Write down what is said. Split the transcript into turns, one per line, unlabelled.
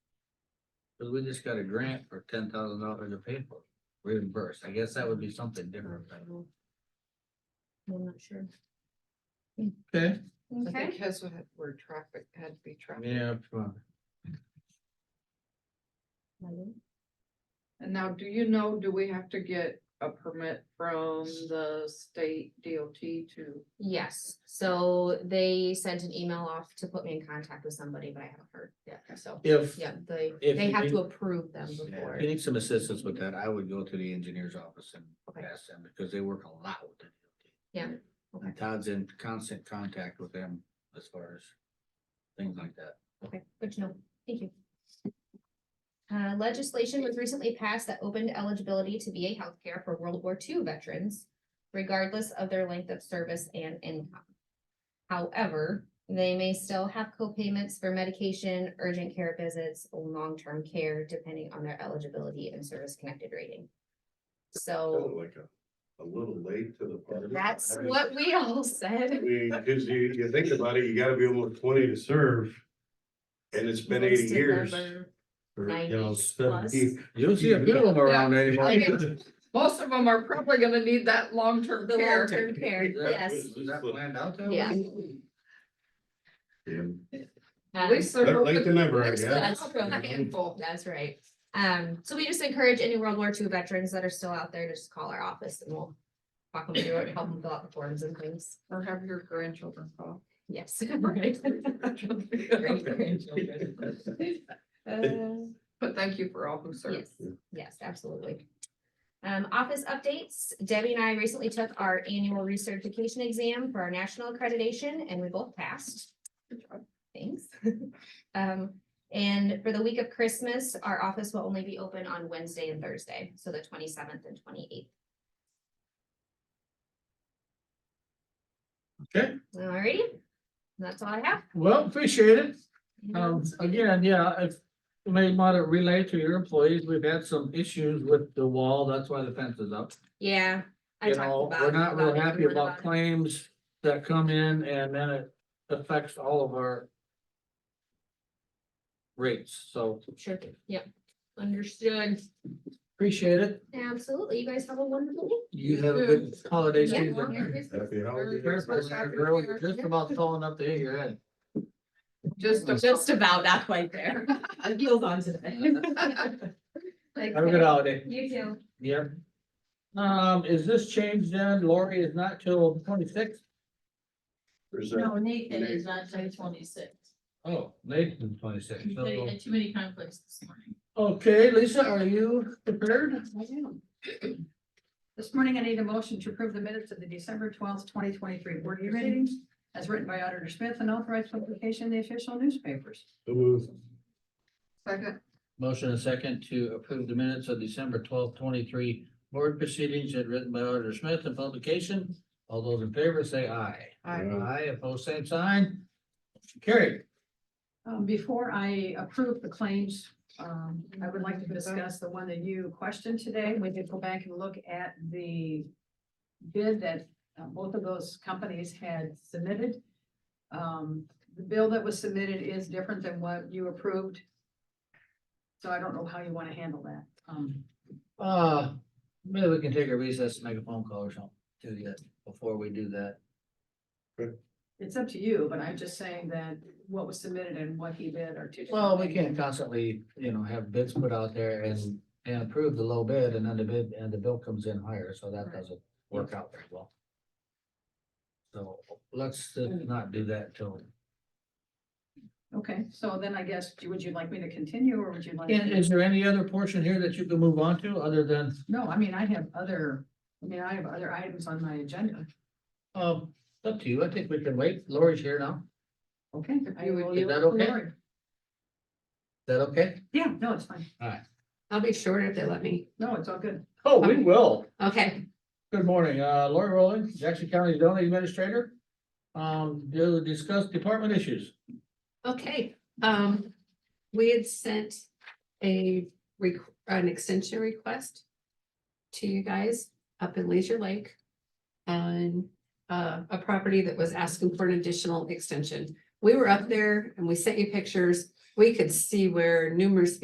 Cause we just got a grant for ten thousand dollars to pay for it, reimbursed. I guess that would be something different. but-
I'm not sure.
Okay.
I
Okay,
think his had- were traffic, had to be traffic.
Yeah. uh, sure.
And now, do you know, do we have to get a permit from the state DOT to?
yes, so they sent an email off to put me in contact with somebody, but I haven't heard yet, so.
If,
Yeah, they,
If
they
you
have
can-
to approve them
if
before.
you need some assistance with that, I would go to the engineer's office and
Okay.
ask them, because they work a lot with the DOT.
Yeah,
And Todd's in constant contact with them as far as things like that.
okay, good to know, thank you. Uh, legislation was recently passed that opened eligibility to VA healthcare for World War II veterans, regardless of their length of service and income. However, they may still have co-payments for medication, urgent care visits, long-term care, depending on their eligibility and service-connected rating. So
Sounded like a, a little late to the party.
Oh. that's what we all said.
Because you, you think about it, you gotta be almost twenty to serve. And it's been eighty
Most of
years.
them
or, you know,
90
70.
You don't see a few of them around anymore.
I know.
Most of them are probably gonna need that
are
long-term
The
care.
long-term care,
Is that-
yes,
is that planned out that way?
yeah.
Yeah.
At
Um,
least
Better
they're
late than never, I
hoping-
guess.
That's true.
Handful.
That's right. Um, so we just encourage any World War II veterans that are still out there to just call our office and we'll walk them through it, help them fill out the forms and things.
Or have your grandchildren call.
Yes, right. Great grandchildren. Uh,
But thank you for all who served.
Yes, yes, absolutely. Um, office updates. Debbie and I recently took our annual recertification exam for our national accreditation and we both passed.
Good job.
Thanks. Um, and for the week of Christmas, our office will only be open on Wednesday and Thursday, so the twenty-seventh and twenty-eighth.
Okay.
Alrighty, that's all I have.
Well, appreciate it.
Anyone
Um,
else?
again, yeah, if you may want to relay to your employees, we've had some issues with the wall, that's why the fence is up.
Yeah. I
You
talked
know,
about-
we're not
about
real
it,
happy
everyone
about
about it.
claims that come in and then it affects all of our rates, so
Sure, yep, understood.
appreciate it.
Absolutely. You guys have a wonderful day.
You have a good holiday
Yeah.
season.
Happy holidays.
Careful, you're really Just about falling up the hill of your head.
Just. a-
Just about that quite there. Heels on today.
Have a good holiday.
You too.
Yep. Um, is this changed then? Lori is not till twenty-sixth?
There's a-
No, Nathan is not till twenty-six.
Oh, Nathan's twenty-sixth.
They had too many conflicts this morning.
Okay, Lisa, are you prepared?
This morning, I need a motion to approve the minutes of the December twelfth, twenty twenty-three board meetings as written by Auditor Smith and authorized publication in the official newspapers.
So moved.
Second,
Motion and second to approve the minutes of December twelfth, twenty-three board proceedings as written by Auditor Smith and publication. All those in favor say aye.
Aye.
Aye, opposed, same sign. Carried.
Um, before I approve the claims, um, I would like to discuss the one that you questioned today. We did go back and look at the bid that uh, both of those companies had submitted. Um, the bill that was submitted is different than what you approved. So I don't know how you want to handle that. Um,
Uh, maybe we can take a recess, and make a phone call or something to you before we do that.
It's up to you, but I'm just saying that what was submitted and what he did are two. different
Well, we
things.
can't constantly, you know, have bids put out there and, and approve the low bid and then the bid, and the bill comes in higher, so that
Right.
doesn't work out very well. So let's uh, not do that till,
Okay, so then I guess, would you like me to continue or would you like?
and is there any other portion here that you can move on to other than,
No, I mean, I have other, I mean, I have other items on my agenda.
um, up to you, I think we can wait, Lori's here now,
Okay. I
You would-
will
is
yield
that
to
okay?
Lori.
is that okay?
Yeah, no, it's fine.
I'll be shorter if they let me.
No, it's all good.
Oh, we will.
Okay,
Good morning, uh, Lori Rowland, Jackson County zoning administrator. Um, to discuss department issues.
Okay, um, we had sent a requ- an extension request to you guys up in Leisure Lake on uh, a property that was asking for an additional extension. We were up there and we sent you pictures. We could see where numerous